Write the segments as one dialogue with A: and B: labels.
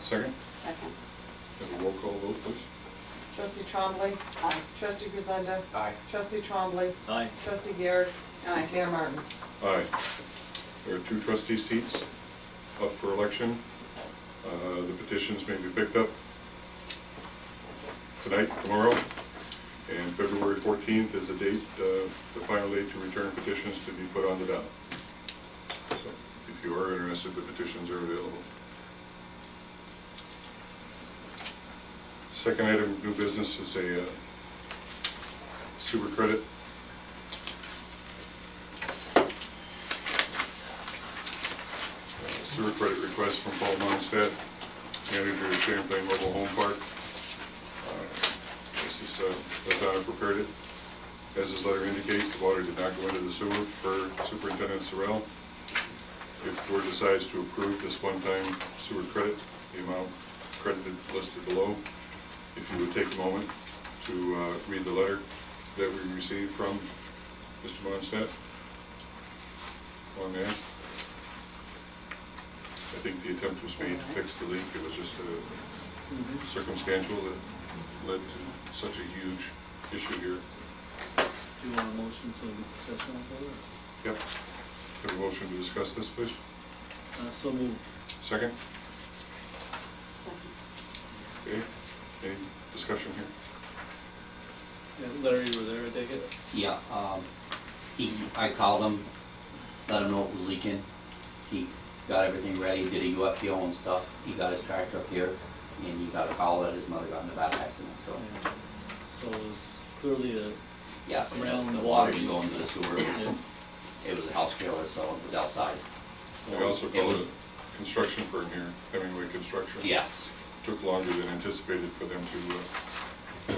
A: Second?
B: Second.
A: Have a roll call vote, please.
C: Trustee Trombley.
B: Aye.
C: Trustee Grisenda.
D: Aye.
C: Trustee Trombley.
D: Aye.
C: Trustee Garrett.
B: Aye.
C: Mayor Martin.
A: Aye. There are two trustee seats up for election. Uh, The petitions may be picked up tonight, tomorrow, and February 14th is the date, uh, the final date to return petitions to be put on the ballot. So If you are interested, the petitions are available. Second item of new business is a uh, sewer credit sewer credit request from Paul Monstead, manager of Champlain Mobile Home Park. Uh, This is, uh, the town prepared it. As his letter indicates, the water did not go into the sewer per Superintendent Sorrell. If the board decides to approve this one-time sewer credit, the amount credited listed below, if you would take a moment to uh, read the letter that we received from Mr. Monstead on this. I think the attempt was made to fix the leak, it was just uh, circumstantial that led to such a huge issue here.
D: Do you want a motion to session on
A: Yep. Have a motion to discuss this, please?
D: that? Uh, so moved.
A: Second?
B: Second.
A: Okay, any discussion here?
D: Yeah, Larry, you were there, I take it?
E: Yeah, um, he, I called him, let him know it was leaking. He got everything ready, did a UFO and stuff. He got his tractor up here, and he got a call that his mother got in a bad accident, so,
D: Yeah. So it was clearly a,
E: yes. and
D: Around
E: The
D: the
E: water
D: water.
E: didn't go into the sewer, it was- it was a house trailer, so it was outside.
A: We also called a construction firm here, Hemingway Construction.
E: Yes,
A: Took longer than anticipated for them to uh,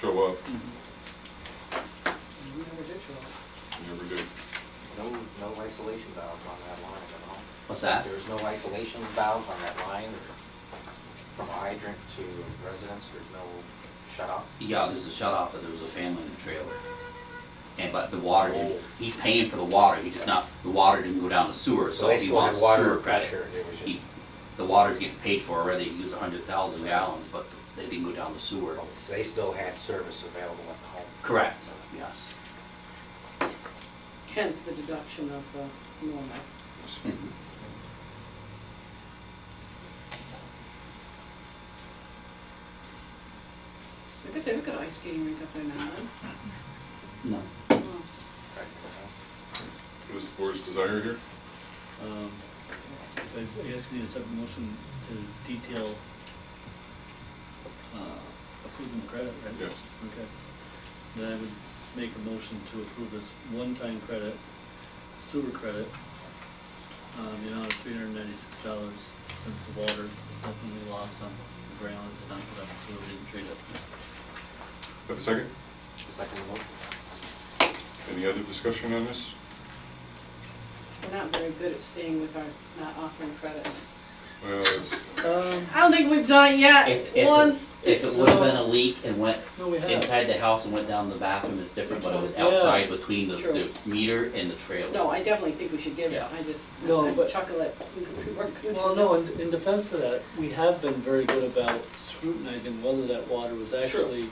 A: show up,
C: You never did show up.
A: never did.
F: No, no isolation valves on that line at all.
E: what's that?
F: There's no isolation valves on that line from hydrant to residence, there's no shut off.
E: Yeah, there's a shut off, but there was a family in the trailer. And, but the water,
F: Oh.
E: didn't- he's paying for the water, he just not, the water didn't go down the sewer, so
F: they
E: he
F: still
E: wants
F: had
E: the
F: water
E: sewer credit.
F: pressure, it was just-
E: He- The water's getting paid for already, he used a hundred thousand gallons, but they didn't go down the sewer.
F: So they still had service available at home.
E: Correct, yes.
C: Hence the deduction of the normal.
E: Mhm.
B: I bet they've got ice skating rink up there now,
E: No,
B: huh?
F: Correct, uh-huh.
A: It was the board's desire here?
D: um, I I guess we need a separate motion to detail uh, approving the credit, right?
A: Yes.
D: Okay. Then I would make a motion to approve this one-time credit, sewer credit, um, the amount of three hundred and ninety-six dollars since the water was definitely lost on the ground and not put up, so we didn't treat it.
A: Have a second?
F: Second motion.
A: Any other discussion on this?
C: We're not very good at staying with our, not offering credits.
A: Well, it's-
D: Um,
C: I don't think we've done it yet,
E: if, if,
C: once.
E: it- if it would've been a leak and went
D: No, we have.
E: inside the house and went down the bathroom, it's different, but it was
D: Yeah.
E: outside between the, the
C: True.
E: meter and the trailer.
C: No, I definitely think we should give it,
E: Yeah.
C: I just,
D: No,
C: I
D: but-
C: chuckle at, we weren't good
D: Well,
C: at
D: no,
C: this.
D: in, in defense of that, we have been very good about scrutinizing whether that water was actually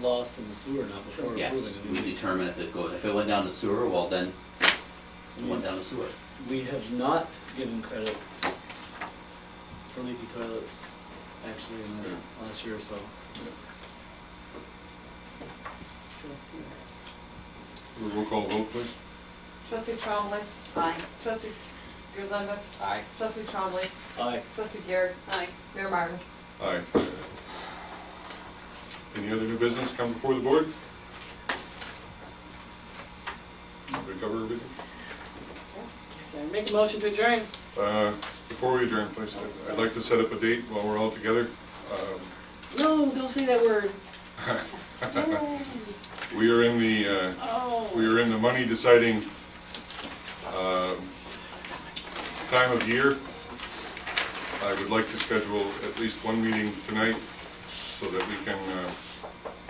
D: lost in the sewer or not before approving
E: Yes,
D: it.
E: we determine if it goes, if it went down the sewer, well then, it went down the sewer.
D: We have not given credits for leaky toilets, actually, in the last year or so.
A: Roll call vote, please.
C: Trustee Trombley.
B: Aye.
C: Trustee Grisenda.
F: Aye.
C: Trustee Trombley.
D: Aye.
C: Trustee Garrett.
B: Aye.
C: Mayor Martin.
A: Aye. Any other new business come before the board? Did we cover everything?
C: So Make a motion to adjourn.
A: Uh, Before we adjourn, please, I'd- I'd like to set up a date while we're all together. Um,
C: No, don't say that word.
A: We are in the, uh,
C: Oh.
A: we are in the money deciding um, time of year. I would like to schedule at least one meeting tonight so that we can, uh,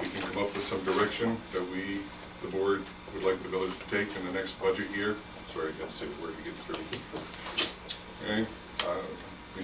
A: we can come up with some direction that we, the board, would like the village to take in the next budget year. Sorry, I got to say the word to get through. Okay, uh,